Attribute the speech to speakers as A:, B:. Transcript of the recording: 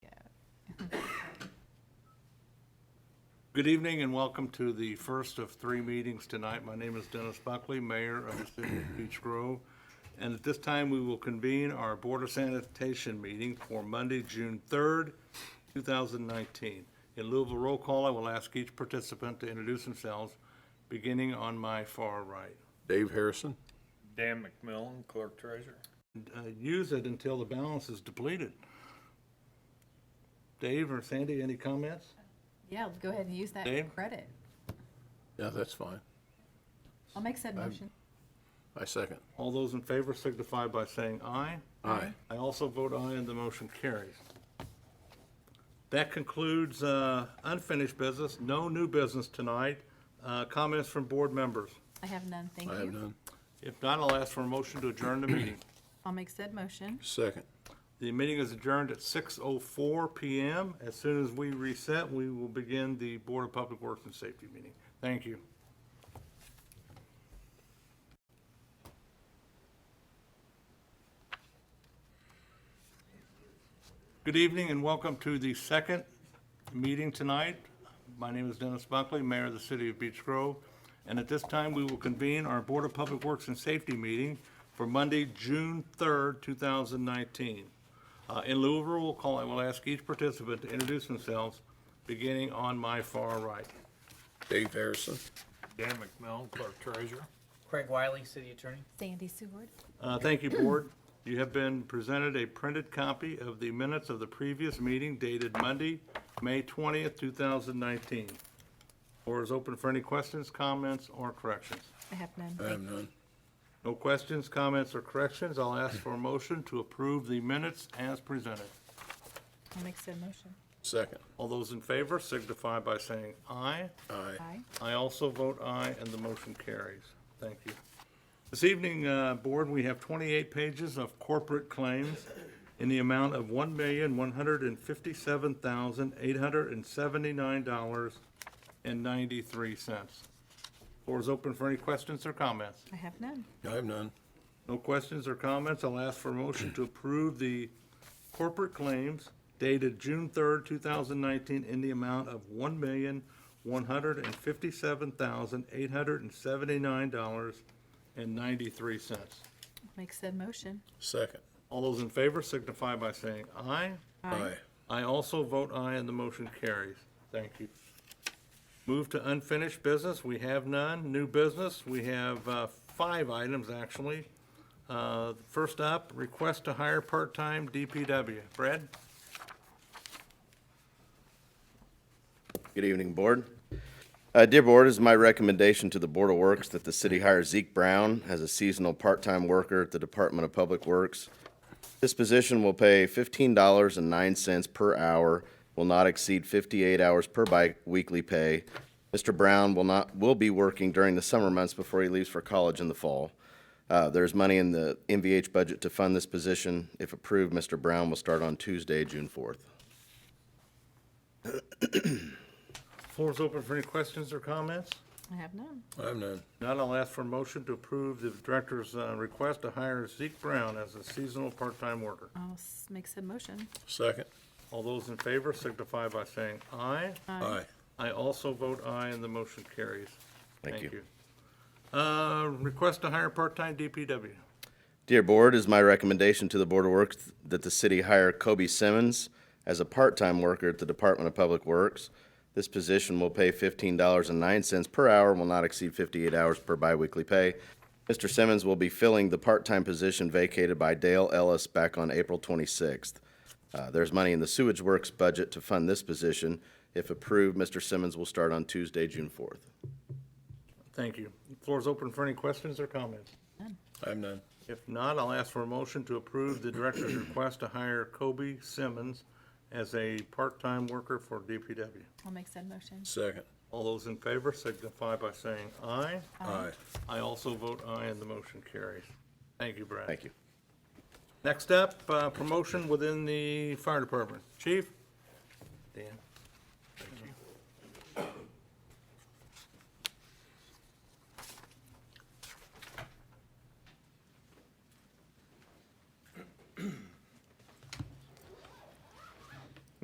A: Good evening and welcome to the first of three meetings tonight. My name is Dennis Buckley, Mayor of the City of Beech Grove. And at this time, we will convene our Board of Sanitation meeting for Monday, June 3rd, 2019. In lieu of a roll call, I will ask each participant to introduce themselves, beginning on my far right.
B: Dave Harrison.
C: Dan McMillan, Clerk Treasurer.
A: And, uh, Use it until the balance is depleted. Dave or Sandy, any comments?
D: Yeah, go ahead and use that
A: Dave?
D: credit.
B: Yeah, that's fine.
D: I'll make said motion.
B: I second.
A: All those in favor signify by saying aye.
B: Aye.
A: I also vote aye, and the motion carries. That concludes uh, unfinished business, no new business tonight. Uh, Comments from board members?
D: I have none, thank
B: I have
D: you.
B: none.
A: If not, I'll ask for a motion to adjourn the meeting.
D: I'll make said motion.
B: Second.
A: The meeting is adjourned at 6:04 PM. As soon as we reset, we will begin the Board of Public Works and Safety meeting. Thank you. Good evening and welcome to the second meeting tonight. My name is Dennis Buckley, Mayor of the City of Beech Grove. And at this time, we will convene our Board of Public Works and Safety meeting for Monday, June 3rd, 2019. Uh, In lieu of a roll call, I will ask each participant to introduce themselves, beginning on my far right.
B: Dave Harrison.
C: Dan McMillan, Clerk Treasurer.
E: Craig Wiley, City Attorney.
D: Sandy Seward.
A: Uh, Thank you, Board. You have been presented a printed copy of the minutes of the previous meeting dated Monday, May 20th, 2019. Floor is open for any questions, comments, or corrections.
D: I have none,
B: I
D: thank
B: have none.
A: No questions, comments, or corrections. I'll ask for a motion to approve the minutes as presented.
D: I'll make said motion.
B: Second.
A: All those in favor signify by saying aye.
B: Aye.
D: Aye.
A: I also vote aye, and the motion carries. Thank you. This evening, uh, Board, we have 28 pages of corporate claims in the amount of $1,157,879.93. Floor is open for any questions or comments.
D: I have none.
B: I have none.
A: No questions or comments. I'll ask for a motion to approve the corporate claims dated June 3rd, 2019, in the amount of $1,157,879.93.
D: I'll make said motion.
B: Second.
A: All those in favor signify by saying aye.
B: Aye.
A: I also vote aye, and the motion carries. Thank you. Move to unfinished business. We have none. New business, we have uh, five items, actually. Uh, First up, request to hire part-time DPW. Brad?
F: Good evening, Board. Uh, Dear Board, it is my recommendation to the Board of Works that the city hire Zeke Brown as a seasonal part-time worker at the Department of Public Works. This position will pay fifteen dollars and nine cents per hour, will not exceed fifty-eight hours per bi- weekly pay. Mr. Brown will not, will be working during the summer months before he leaves for college in the fall. Uh, There's money in the MVH budget to fund this position. If approved, Mr. Brown will start on Tuesday, June fourth.
A: Floor is open for any questions or comments?
D: I have none.
B: I have none.
A: Not, I'll ask for a motion to approve the director's uh, request to hire Zeke Brown as a seasonal part-time worker.
D: I'll s- make said motion.
B: Second.
A: All those in favor signify by saying aye.
B: Aye.
A: I also vote aye, and the motion carries.
F: Thank you.
A: Uh, Request to hire part-time DPW.
F: Dear Board, it is my recommendation to the Board of Works that the city hire Kobe Simmons as a part-time worker at the Department of Public Works. This position will pay fifteen dollars and nine cents per hour and will not exceed fifty-eight hours per biweekly pay. Mr. Simmons will be filling the part-time position vacated by Dale Ellis back on April twenty-sixth. Uh, there's money in the sewage works budget to fund this position. If approved, Mr. Simmons will start on Tuesday, June fourth.
A: Thank you. Floor is open for any questions or comments.
B: I have none.
A: If not, I'll ask for a motion to approve the director's request to hire Kobe Simmons as a part-time worker for DPW.
D: I'll make said motion.
B: Second.
A: All those in favor signify by saying aye.
B: Aye.
A: I also vote aye, and the motion carries. Thank you, Brad.
F: Thank you.
A: Next up, uh, promotion within the fire department. Chief? Dan?